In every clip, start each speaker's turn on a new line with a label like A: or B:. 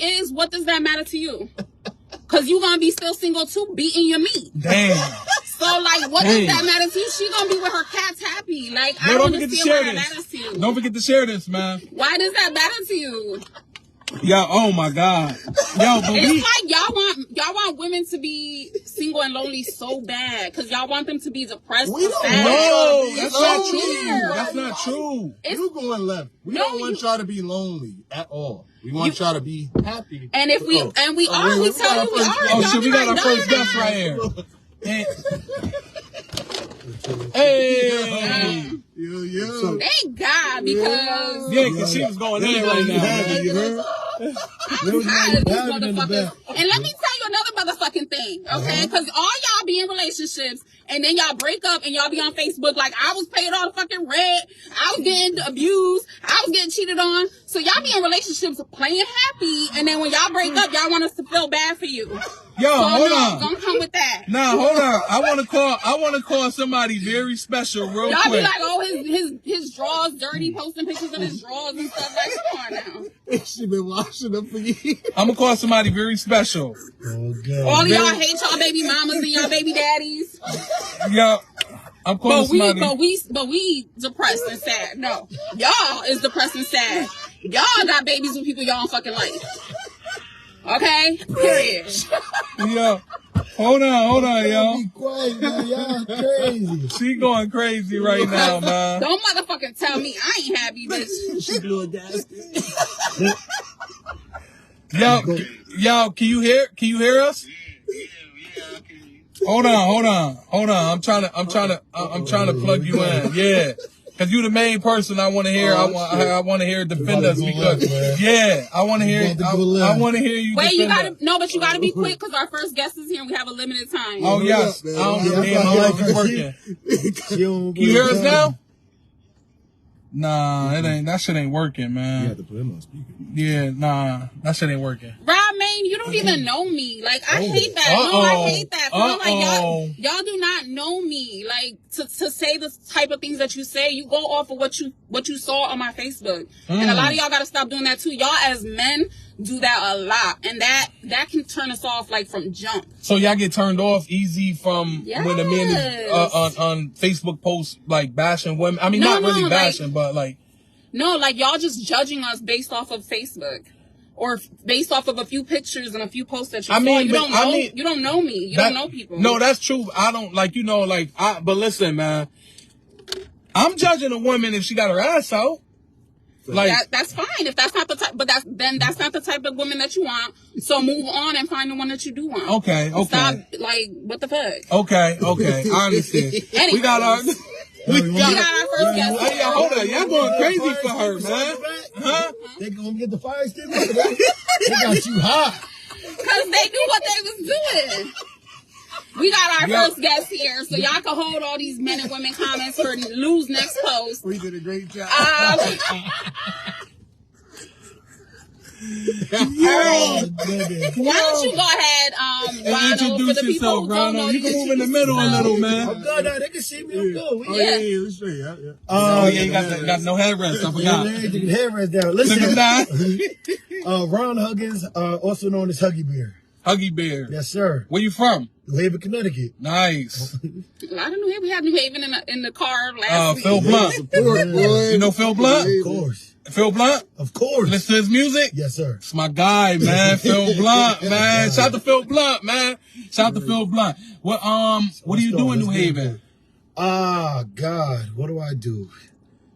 A: is, what does that matter to you? Cause you gonna be still single too, beating your meat.
B: Damn.
A: So like, what
B: Hey.
A: does that matter to you? She gonna be with her cats happy. Like, I
B: No,
A: don't
B: don't forget
A: understand
B: to
A: why
B: share
A: that matters
B: this.
A: to you.
B: Don't forget to share this, man.
A: Why does that matter to you?
B: Yo, oh my God. Yo, but we.
A: It's like y'all want y'all want women to be single and lonely so bad because y'all want them to be depressed.
C: We
A: or
C: don't
A: sad.
B: No,
C: Lonely,
B: that's not
C: lonely.
B: true. That's not true.
A: It's-
C: you going left. We
A: No,
C: don't want
A: you-
C: you, all to be lonely at all. We want you, all to be happy.
A: And if we
C: Oh.
A: and we
C: Oh,
A: are, we,
C: got
A: tell
C: our
A: you we are.
C: first-
B: Oh
A: Y'all
B: shit,
A: be
B: we got our
A: like,
B: first
A: no, you're
B: guest
A: not.
B: right here. And- Hey,
C: Yo, yo.
D: So-
A: Thank God because
B: yeah, cause she was going in right now. man.
D: you heard?
A: I'm tired of these
D: Having in the
A: motherfuckers.
D: back.
A: And let me tell you another motherfucking thing,
B: Uh-huh.
A: okay? Because all y'all be in relationships and then y'all break up and y'all be on Facebook like I was paid all the fucking rent, I was getting abused, I was getting cheated on. So y'all be in relationships playing happy, and then when y'all break up, y'all want us to feel bad for you.
B: Yo,
A: So
B: hold
A: no,
B: on.
A: don't come with that.
B: Nah, hold on. I want to call. I want to call somebody very special real
A: Y'all be
B: quick.
A: like, oh, his his his drawers dirty, posting pictures of his drawers and stuff. Like, come on now.
C: she been washing up for years.
B: I'm gonna call somebody very special.
D: Oh
A: All
D: god.
A: of y'all hate y'all baby mamas and y'all baby daddies.
B: Yo, I'm calling
A: But we,
B: somebody.
A: but we, but we depressed and sad. No, y'all is depressed and sad. Y'all got babies with people y'all don't fucking like. Okay, period.
B: Yo, hold on, hold on, yo.
D: Be quiet, man. Y'all crazy.
B: She going crazy right now, man.
A: Don't motherfucking tell me I ain't happy, bitch.
C: she blew a gasket.
B: Yo, yo, can you hear? Can you hear us? Hold on, hold on, hold on. I'm trying to, I'm trying to, I- I'm trying to plug you in. Yeah, because you the main person I want to hear. I want, I, I want to hear defend us because, yeah, I want to hear, I, I want to hear you.
A: Wait, you
B: defend us.
A: gotta no, but you gotta be quick because our first guest is here and we have a limited time.
B: Oh yes, I
C: man.
B: don't
C: Yeah,
B: yeah, my
D: yeah,
B: life is
D: yeah.
B: working.
D: She don't
B: You hear us now? Nah, it ain't. That shit ain't working,
D: You have
B: man.
D: to put him on speaker.
B: Mm-hmm. Yeah, nah, that shit ain't working.
A: Rob Main, you don't even know me. Like I hate that. No,
B: Uh-oh.
A: I hate that. Feel like y'all,
B: Oh, Uh-oh.
A: y'all do not know me. Like to, to say the type of things that you say, you go off of what you what you saw on my Facebook. And a lot of
B: Mm.
A: y'all gotta stop doing that too. Y'all as men do that a lot. And that that can turn us off like from jump.
B: So y'all get turned off easy from when a man is uh,
A: Yes.
B: on on Facebook posts like bashing women. I mean,
A: No,
B: not really
A: no, like-
B: bashing, but like
A: No, like y'all just judging us based off of Facebook. Or f- based off of a few pictures and a few posts that you
B: I
A: saw,
B: mean,
A: you
B: but-
A: don't know.
B: I mean-
A: you don't know me. You
B: that-
A: don't know people.
B: No, that's true. I don't like you know like I. But listen, man, I'm judging a woman if she got her ass out. Like
A: that, that's fine if that's not the type, but that's then that's not the type of woman that you want. So move on and find the one that you do want.
B: okay, okay.
A: Stop. Like what the fuck?
B: Okay, okay, I understand. we got our.
D: We
A: We got our first guest.
B: Hey, yo, hold on, y'all going crazy for her, man. Huh?
D: They gonna get the fire extinguisher. They got you hot.
A: Cause they knew what they was doing. We got our
B: Yo.
A: first guest here, so y'all can hold all these men and women comments for Lou's next post.
C: We did a great job.
A: Um,
D: Oh, nigga.
A: why don't you go ahead, um,
B: And
A: Ronald, for
B: introduce
A: the people
B: yourself,
A: who don't know
B: Ronald. You
A: you?
B: can move in the middle a little,
D: I'm
B: man.
D: good now. Oh, They can see me. I'm good.
C: Oh,
D: We-
C: yeah, yeah, let's see. Yeah, yeah.
B: Oh yeah, you got, the, got no headrest. I
D: Yeah,
B: forgot.
D: man, you can hear us there.
B: Look at
D: Listen,
B: that,
D: uh, Ron Huggins, uh, also known as Huggy Bear.
B: Huggy Bear.
D: Yes, sir.
B: Where you from?
D: New Haven, Connecticut.
B: Nice.
A: A lot of New Haven. We had New Haven in the, in the car last
B: Uh,
A: week.
B: Phil Blunt.
C: Support, boy.
B: You know Phil Blunt?
D: Of course.
B: Phil Blunt.
D: Of course.
B: Listen to his music.
D: Yes, sir.
B: It's my guy, man. Phil Blunt, man. Shout out to Phil Blunt, man. Shout out to Phil Blunt. What um? What do you do in New Haven?
D: Ah, God, what do I do?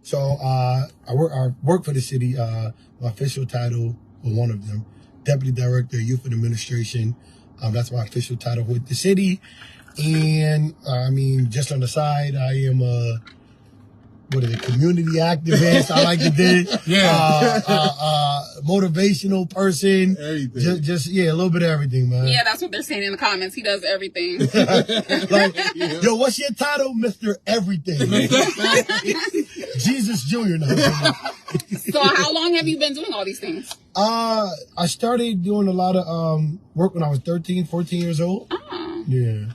D: So uh, I work. I work for the city. Uh, my official title, or one of them, deputy director, youth and administration. Um, that's my official title with the city. And uh, I mean, just on the side, I am a what is it? Community activist. I like to do.
B: Yeah.
D: Uh, uh, uh, motivational person.
C: Everything.
D: Just, just yeah, a little bit of everything, man.
A: Yeah, that's what they're saying in the comments. He does everything.
D: Like, yo, what's your title, Mister Everything? Jesus Junior. No,
A: so how long have you been doing all these things?
D: uh, I started doing a lot of um work when I was 13, 14 years old. Yeah.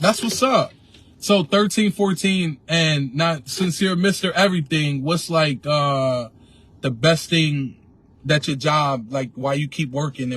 B: That's what's up. So 13, 14, and not sincere Mr. Everything, what's like uh the best thing that your job, like why you keep working